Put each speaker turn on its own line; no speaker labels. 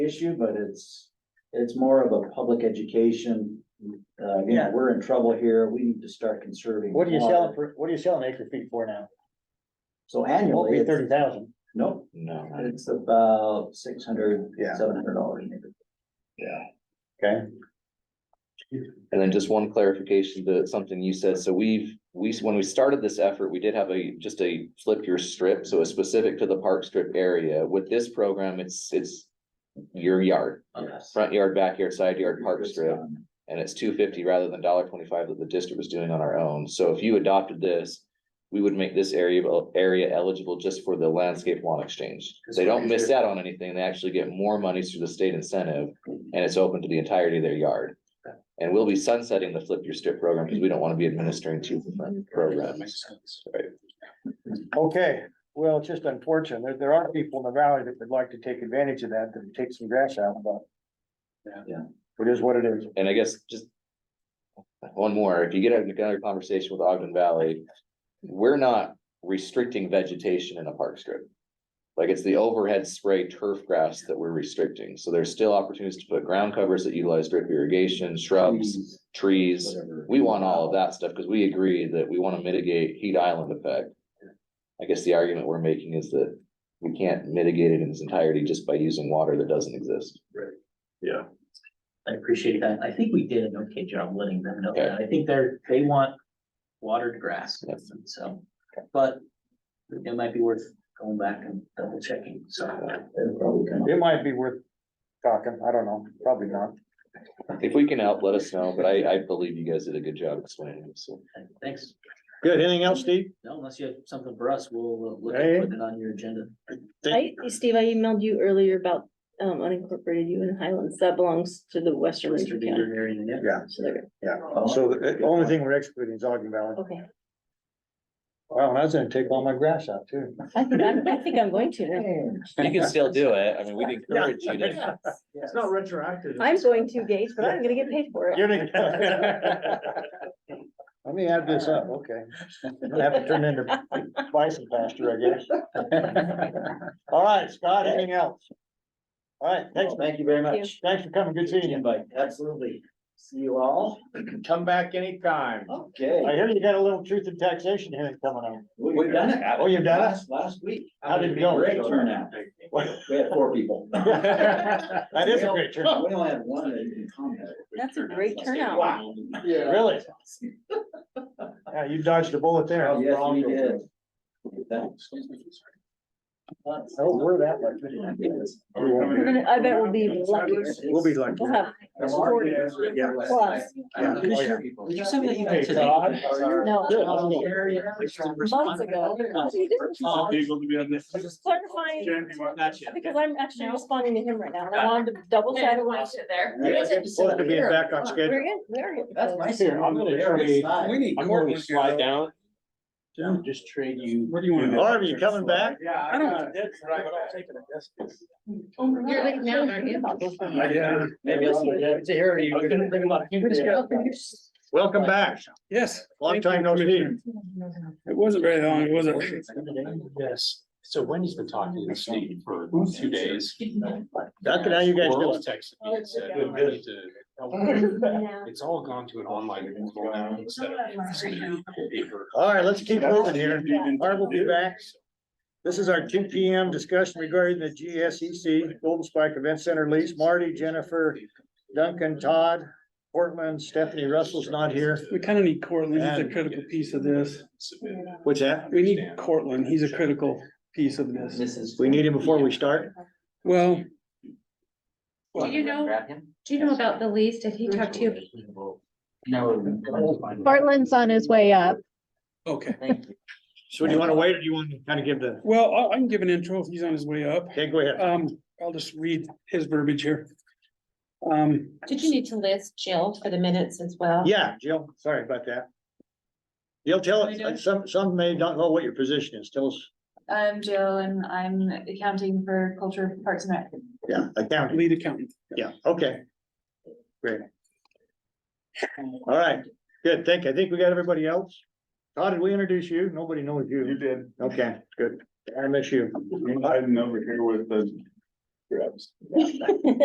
issue, but it's, it's more of a public education. Uh, you know,
Yeah.
we're in trouble here. We need to start conserving.
What are you
water.
selling for, what are you selling acre feet for now?
So
It won't
annually,
be
it's,
thirty thousand.
no,
No, I-
it's about six hundred,
Yeah.
seven hundred dollars maybe.
yeah.
Okay.
And then just one clarification to something you said. So we've, we, when we started this effort, we did have a, just a flip your strip, so it's specific to the park strip area. With this program, it's, it's your yard,
Yes. um,
front yard, backyard, side yard, park strip. and it's two fifty rather than dollar twenty-five that the district was doing on our own. So if you adopted this, we would make this area, area eligible just for the landscape lawn exchange. They don't miss out on anything. They actually get more money through the state incentive, and it's open to the entirety of their yard. And we'll be sunsetting the flip your strip program because we don't want to be administering two different programs. Right.
Okay, well, it's just unfortunate. There, there are people in the valley that would like to take advantage of that, to take some grass out, but.
Yeah.
It is what it is.
And I guess just. One more, if you get into another conversation with Ogden Valley, we're not restricting vegetation in a park strip. Like it's the overhead spray turf grass that we're restricting, so there's still opportunities to put ground covers that utilize drip irrigation,
Mm.
shrubs, trees.
Whatever.
Um, We want all of that stuff, because we agree that we want to mitigate heat island effect. I guess the argument we're making is that we can't mitigate it in its entirety just by using water that doesn't exist.
Yeah.
I appreciate that. I think we did an okay job letting them know
Okay.
that. I think they're, they want watered grass,
Yep.
so, but it might be worth going back and double checking, so.
It'll probably come up.
It might be worth talking. I don't know, probably not.
If we can help, let us know, but I, I believe you guys did a good job explaining it, so.
Thanks.
Good, anything else, Steve?
No, unless you have something for us, we'll uh, look
Hey.
at putting it on your agenda.
Think-
I, Steve, I emailed you earlier about um unincorporated Union Highlands. That belongs to the western
Mr.
Rankin County.
Beaver area, yeah.
Yeah,
So there-
Oh.
so uh, the the only thing we're excluding is Ogden Valley.
Okay,
Wow, I was gonna take all my grass out too.
I think I'm, I think I'm going to now.
You can still do it, I mean, we'd encourage you to,
It's not retroactive.
I'm going to Gage, but I'm gonna get paid for it.
You're gonna- Let me add this up, okay. I'm gonna have to turn into bison pasture, I guess. All right, Scott, anything else? All right, thanks,
Well, Thank you very
Thank
much.
thanks for coming, good seeing you.
Invite, absolutely. See you all.
Come back anytime.
Okay.
I hear you got a little truth in taxation hearing coming up.
We've done it.
Oh, you've done it?
Last- Last week.
How did it go?
Great turnout. We had four people.
That is a great
We
turn,
only had one that didn't comment.
That's a great turnout.
Wow.
really. Yeah, you dodged a bullet there.
Oh,
Yes, we did. Thanks.
Oh, we're that lucky. We won't
We're gonna, I bet we'll be lucky.
We'll be lucky.
We'll have
Yeah.
plus.
Did you send me that email
Hey,
today?
Todd.
No.
Good, let's go.
Months ago. Oh, Just clarifying, because I'm actually responding to him right now, and I wanted to double check.
there.
Supposed to be back on schedule.
We're good, we're good.
That's my.
Here, I'm gonna trade-
We need.
I'm gonna slide down.
Yeah.
Just trade you. Where do
you wanna go? Harvey, you coming back?
Yeah. I don't. That's right, but I'll take it.
Oh
You're leaving now, aren't you?
Yeah.
Maybe I'll.
It's a area.
I was gonna bring
them up.
Welcome back,
Yes,
long time no see.
it wasn't very long, was it?
Yes, so Wendy's been talking to Steve for two days.
That's how you guys do
Squirrels
it.
texted me and said,
Good,
"We need to It's all gone to an online portal now instead of somebody paper.
All right, let's keep moving here. Barb will be back. This is our two P M discussion regarding the G S E C Golden Spike Event Center lease. Marty, Jennifer, Duncan, Todd, Portland, Stephanie Russell's not here.
We kind of need Cortland, he's a
And-
critical piece of this.
What's that?
We need Cortland, he's a critical piece of this.
We need him before we start.
Well,
Do you know, do you know about the lease? Did he talk to you?
Bartland's on his way up.
okay,
So do you want to wait or do you want to kind of give the,
well, I, I can give an intro if he's on his way up.
okay, go
Uh,
ahead.
Um, I'll just read his verbiage here. Um,
Did you need to list Jill for the minutes as well?
Yeah, Jill, sorry about that. You'll tell, us- some, some may not know what your position is. Tell us,
I'm Jill and I'm accounting for culture, parks and rec.
yeah, accounting.
lead accountant.
Yeah, okay. Great. All right, good. Thank, I think we got everybody else. Todd, did we introduce you? Nobody knows you.
You did.
Okay, good. I miss you.
I'm over here with the
Correct.